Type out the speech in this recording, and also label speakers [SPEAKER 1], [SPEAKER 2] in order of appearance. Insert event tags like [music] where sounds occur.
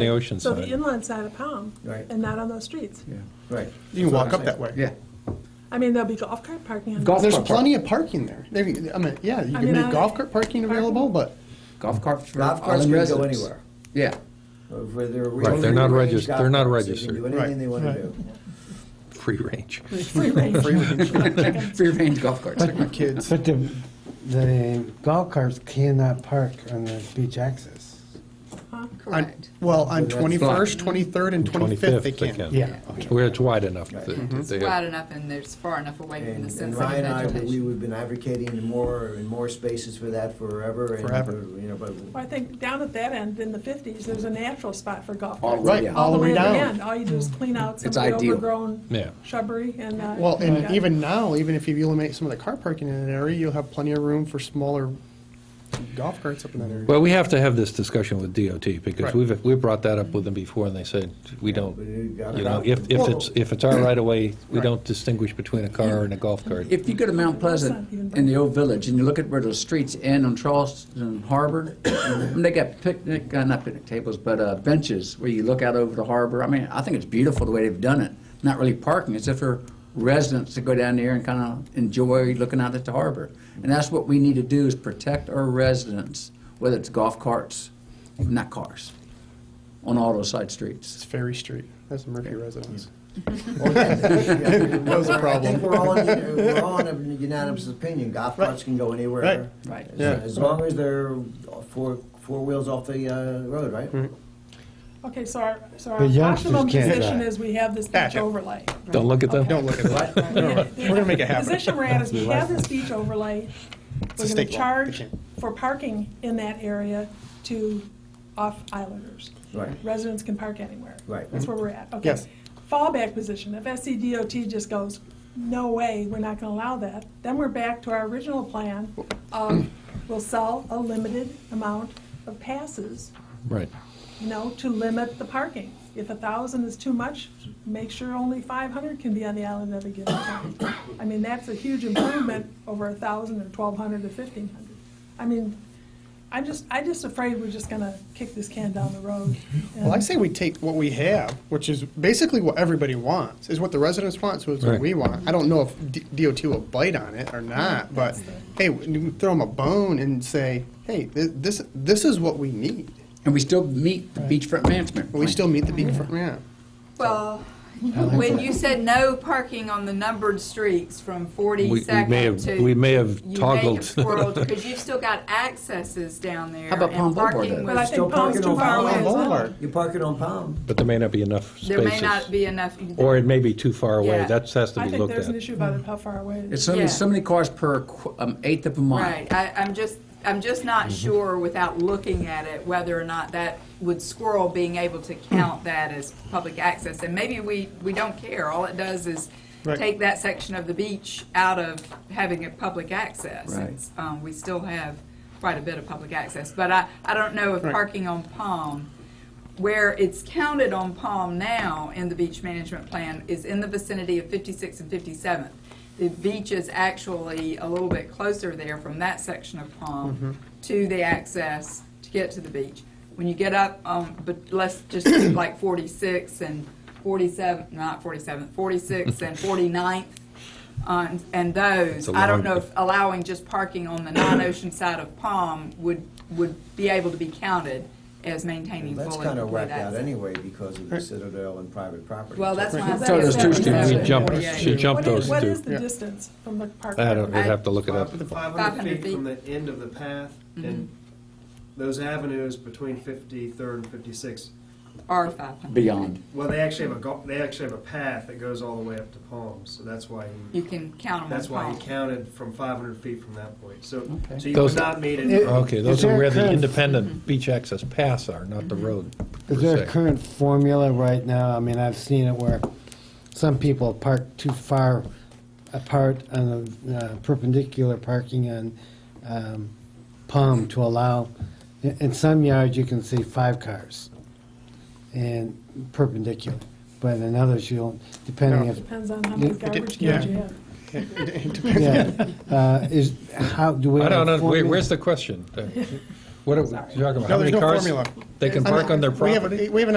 [SPEAKER 1] the ocean
[SPEAKER 2] So the
[SPEAKER 1] side.
[SPEAKER 2] inland side of Palm,
[SPEAKER 3] Right.
[SPEAKER 2] and not on those streets.
[SPEAKER 3] Yeah, right.
[SPEAKER 4] You can walk up that way.
[SPEAKER 3] Yeah.
[SPEAKER 2] I mean, there'll be golf cart parking on.
[SPEAKER 3] Golf
[SPEAKER 4] There's
[SPEAKER 3] cart
[SPEAKER 4] plenty of parking there. There, you- I mean, yeah, you
[SPEAKER 2] I
[SPEAKER 4] can
[SPEAKER 2] mean,
[SPEAKER 4] make
[SPEAKER 2] I-
[SPEAKER 4] golf cart parking available, but
[SPEAKER 3] Golf carts for
[SPEAKER 5] Golf
[SPEAKER 3] all
[SPEAKER 5] carts
[SPEAKER 3] in
[SPEAKER 5] can go
[SPEAKER 3] residence.
[SPEAKER 5] anywhere.
[SPEAKER 3] [laughs] Yeah.
[SPEAKER 5] Or where they're
[SPEAKER 1] Right, they're not
[SPEAKER 5] free-range
[SPEAKER 1] regis-
[SPEAKER 5] golf
[SPEAKER 1] they're not
[SPEAKER 5] carts, They can
[SPEAKER 1] registered.
[SPEAKER 5] do anything
[SPEAKER 4] Right,
[SPEAKER 5] they want
[SPEAKER 4] right.
[SPEAKER 5] to do.
[SPEAKER 1] Free range.
[SPEAKER 2] Free range.
[SPEAKER 3] [laughs] Free range golf carts.
[SPEAKER 4] my kids.
[SPEAKER 6] But the, the golf carts cannot park on the beach access.
[SPEAKER 4] On,
[SPEAKER 7] Correct.
[SPEAKER 4] well, on
[SPEAKER 3] that's
[SPEAKER 4] twenty-first, twenty-third, and twenty-fifth, they can.
[SPEAKER 6] Yeah.
[SPEAKER 1] Where it's wide enough. that- that they
[SPEAKER 7] It's
[SPEAKER 1] have-
[SPEAKER 7] Mm-hmm. wide enough and there's far enough away from the
[SPEAKER 5] And and
[SPEAKER 7] sensitive
[SPEAKER 5] Ryan and I, we-
[SPEAKER 7] vegetation.
[SPEAKER 5] we've been advocating more and more spaces for that forever. and, uh,
[SPEAKER 4] Forever.
[SPEAKER 5] You know, but [laughs]
[SPEAKER 2] Well, I think down at that end, in the fifties, there's a natural spot for golf
[SPEAKER 3] All
[SPEAKER 2] carts.
[SPEAKER 3] right, Mm.
[SPEAKER 4] all the way
[SPEAKER 2] at the
[SPEAKER 4] down.
[SPEAKER 2] end. All you do is clean out some of
[SPEAKER 3] It's
[SPEAKER 2] the
[SPEAKER 3] ideal.
[SPEAKER 1] Yeah.
[SPEAKER 2] overgrown shrubbery and. uh,
[SPEAKER 4] Well,
[SPEAKER 2] you've
[SPEAKER 4] and
[SPEAKER 2] got-
[SPEAKER 4] even now, even if you eliminate some of the car parking in that area, you'll have plenty of room for smaller golf carts up in that area.
[SPEAKER 1] Well, we have to have this discussion with DOT because
[SPEAKER 4] Right.
[SPEAKER 1] we've, we brought that up with them before and they said, we don't,
[SPEAKER 5] but you got
[SPEAKER 1] you
[SPEAKER 5] it
[SPEAKER 1] know,
[SPEAKER 5] out.
[SPEAKER 1] if, if it's, if it's our right of way, we
[SPEAKER 4] Right.
[SPEAKER 1] don't distinguish between a car and a golf cart.
[SPEAKER 3] If you go to Mount Pleasant in the old village and you look at where those streets end on Charleston Harbor, [coughs] and they got picnic, uh, not picnic tables, but uh, benches where you look out over the harbor. I mean, I think it's beautiful the way they've done it. Not really parking, it's just for residents to go down there and kind of enjoy looking out at the harbor. And that's what we need to do is protect our residents, whether it's golf carts, not cars, on all those side
[SPEAKER 4] It's
[SPEAKER 3] streets.
[SPEAKER 4] Ferry Street. That's the Murphy residence.
[SPEAKER 5] That
[SPEAKER 4] was a
[SPEAKER 5] I
[SPEAKER 4] problem.
[SPEAKER 5] think we're all, in- we're all in a unanimous opinion, golf carts can go
[SPEAKER 4] Right.
[SPEAKER 5] anywhere.
[SPEAKER 3] Right.
[SPEAKER 5] As-
[SPEAKER 4] Yeah.
[SPEAKER 5] As long as they're four, four wheels off the uh, road, right?
[SPEAKER 2] Okay, so our, so our
[SPEAKER 6] The youngsters
[SPEAKER 2] optimum
[SPEAKER 6] can't
[SPEAKER 2] position
[SPEAKER 6] drive.
[SPEAKER 2] is we have this beach
[SPEAKER 4] Gotcha.
[SPEAKER 2] overlay.
[SPEAKER 1] Don't look at them.
[SPEAKER 4] Don't look at that. [laughs] We're gonna make it happen.
[SPEAKER 2] The position we're at is we have this beach overlay.
[SPEAKER 4] a
[SPEAKER 2] We're gonna
[SPEAKER 4] state law.
[SPEAKER 2] charge
[SPEAKER 4] They can't-
[SPEAKER 2] for parking in that area to off-islanders.
[SPEAKER 5] Right.
[SPEAKER 2] Residents can park anywhere.
[SPEAKER 5] Right.
[SPEAKER 2] That's where we're at. Okay.
[SPEAKER 4] Yes.
[SPEAKER 2] Fallback position, if SCDOT just goes, no way, we're not gonna allow that, then we're back to our original plan of we'll sell a limited amount of passes
[SPEAKER 1] Right.
[SPEAKER 2] you know, to limit the parking. If a thousand is too much, make sure only five hundred can be on the island at a given time. I mean, that's a huge improvement over a thousand or twelve hundred or fifteen hundred. I mean, I'm just, I'm just afraid we're just gonna kick this can down the road.
[SPEAKER 4] Well, I say we take what we have, which is basically what everybody wants, is what the residents want, so it's what
[SPEAKER 1] Right.
[SPEAKER 4] we want. I don't know if D- DOT will bite on it or not, but hey, we throw them a bone and say, hey, thi- this, this is what we need.
[SPEAKER 3] And we still meet the beachfront management.
[SPEAKER 4] But we
[SPEAKER 3] plan.
[SPEAKER 4] still meet the beachfront, yeah.
[SPEAKER 7] Well, when you said no parking on the numbered streets from
[SPEAKER 1] We- we may
[SPEAKER 7] 42nd
[SPEAKER 1] have-
[SPEAKER 7] to.
[SPEAKER 1] we may have toggled.
[SPEAKER 7] Because
[SPEAKER 1] [laughs]
[SPEAKER 7] you've still got accesses down there.
[SPEAKER 3] How about
[SPEAKER 7] and
[SPEAKER 3] Palm Boulevard
[SPEAKER 7] parking
[SPEAKER 3] then?
[SPEAKER 2] But I
[SPEAKER 7] was-
[SPEAKER 5] Still
[SPEAKER 2] think Palm's
[SPEAKER 5] parking
[SPEAKER 2] too
[SPEAKER 5] on
[SPEAKER 2] far
[SPEAKER 5] Palm
[SPEAKER 2] away as well.
[SPEAKER 4] Boulevard.
[SPEAKER 5] You park it on Palm.
[SPEAKER 1] But there may not be enough spaces.
[SPEAKER 7] There may not be enough.
[SPEAKER 1] Or it may be too far away.
[SPEAKER 7] Yeah.
[SPEAKER 1] That's, has to
[SPEAKER 2] I
[SPEAKER 1] be
[SPEAKER 2] think
[SPEAKER 1] looked
[SPEAKER 2] there's an
[SPEAKER 1] at.
[SPEAKER 2] issue about how far away it
[SPEAKER 3] It's
[SPEAKER 2] is.
[SPEAKER 3] so many,
[SPEAKER 7] Yeah.
[SPEAKER 3] so many cars per qu- um, eighth of a mile.
[SPEAKER 7] Right, I, I'm just, I'm just
[SPEAKER 4] Mm-hmm.
[SPEAKER 7] not sure without looking at it whether or not that would squirrel being able to
[SPEAKER 4] Mm.
[SPEAKER 7] count that as public access. And maybe we, we don't care, all it does is
[SPEAKER 4] Right.
[SPEAKER 7] take that section of the beach out of having a public access.
[SPEAKER 3] Right.
[SPEAKER 7] It's, Um, we still have quite a bit of public access, but I, I don't know if
[SPEAKER 4] Right.
[SPEAKER 7] parking on Palm, where it's counted on Palm now in the beach management plan is in the vicinity of 56 and 57th. The beach is actually a little bit closer there from that section of Palm to the access to get to the beach. When you get up, um, but let's just do [coughs] like 46 and 47, not 47, 46 and 49th, uh, and- and those,
[SPEAKER 1] It's a
[SPEAKER 7] I don't
[SPEAKER 1] long-
[SPEAKER 7] know if allowing just parking on the non-ocean side of Palm would, would be able to be counted as maintaining fully.
[SPEAKER 5] That's kind of
[SPEAKER 7] complete
[SPEAKER 5] whacked out
[SPEAKER 7] access.
[SPEAKER 5] anyway because of the Citadel and private property.
[SPEAKER 7] Well, that's why I said.
[SPEAKER 3] So there's two
[SPEAKER 7] it's
[SPEAKER 3] streets.
[SPEAKER 1] We
[SPEAKER 3] Yeah.
[SPEAKER 1] jumped,
[SPEAKER 7] Yeah.
[SPEAKER 1] she jumped
[SPEAKER 2] What is,
[SPEAKER 1] those
[SPEAKER 2] what is
[SPEAKER 1] two.
[SPEAKER 2] the distance from the park?
[SPEAKER 1] I don't, we'd have to look it up.
[SPEAKER 8] Five- the
[SPEAKER 7] Five
[SPEAKER 8] 500
[SPEAKER 7] hundred
[SPEAKER 8] feet from the end of the path, and those avenues between 53rd and 56,
[SPEAKER 7] Are five hundred.
[SPEAKER 3] Beyond.
[SPEAKER 8] well, they actually have a, go- they actually have a path that goes all the way up to Palm, so that's why, he-
[SPEAKER 7] You can count them on
[SPEAKER 8] that's why he
[SPEAKER 7] palm.
[SPEAKER 8] counted from 500 feet from that point. So,
[SPEAKER 3] Okay.
[SPEAKER 8] so you
[SPEAKER 1] Those-
[SPEAKER 8] would not meet
[SPEAKER 6] It-
[SPEAKER 8] it.
[SPEAKER 1] Okay, those
[SPEAKER 6] Is
[SPEAKER 1] are
[SPEAKER 6] there a
[SPEAKER 1] where the
[SPEAKER 6] curve?
[SPEAKER 1] independent beach access paths are, not the road. per
[SPEAKER 6] Is there
[SPEAKER 1] se.
[SPEAKER 6] a current formula right now? I mean, I've seen it where some people park too far apart on the uh, perpendicular parking on um, Palm to allow, in in some yards, you can see five cars and perpendicular, but in others, you'll, depending if,
[SPEAKER 2] Depends on how many garbage cans you have.
[SPEAKER 1] [laughs]
[SPEAKER 6] yeah, uh, is, how, do we?
[SPEAKER 1] I
[SPEAKER 6] have a
[SPEAKER 1] don't know, where-
[SPEAKER 4] [laughs]
[SPEAKER 6] formula?
[SPEAKER 1] where's the question? What are, we- you're talking about
[SPEAKER 4] No,
[SPEAKER 1] how many
[SPEAKER 4] there's no
[SPEAKER 1] cars
[SPEAKER 4] formula.
[SPEAKER 1] they can
[SPEAKER 4] I'm
[SPEAKER 1] park
[SPEAKER 4] not-
[SPEAKER 1] on their
[SPEAKER 4] We have,
[SPEAKER 1] property?
[SPEAKER 4] a- we have an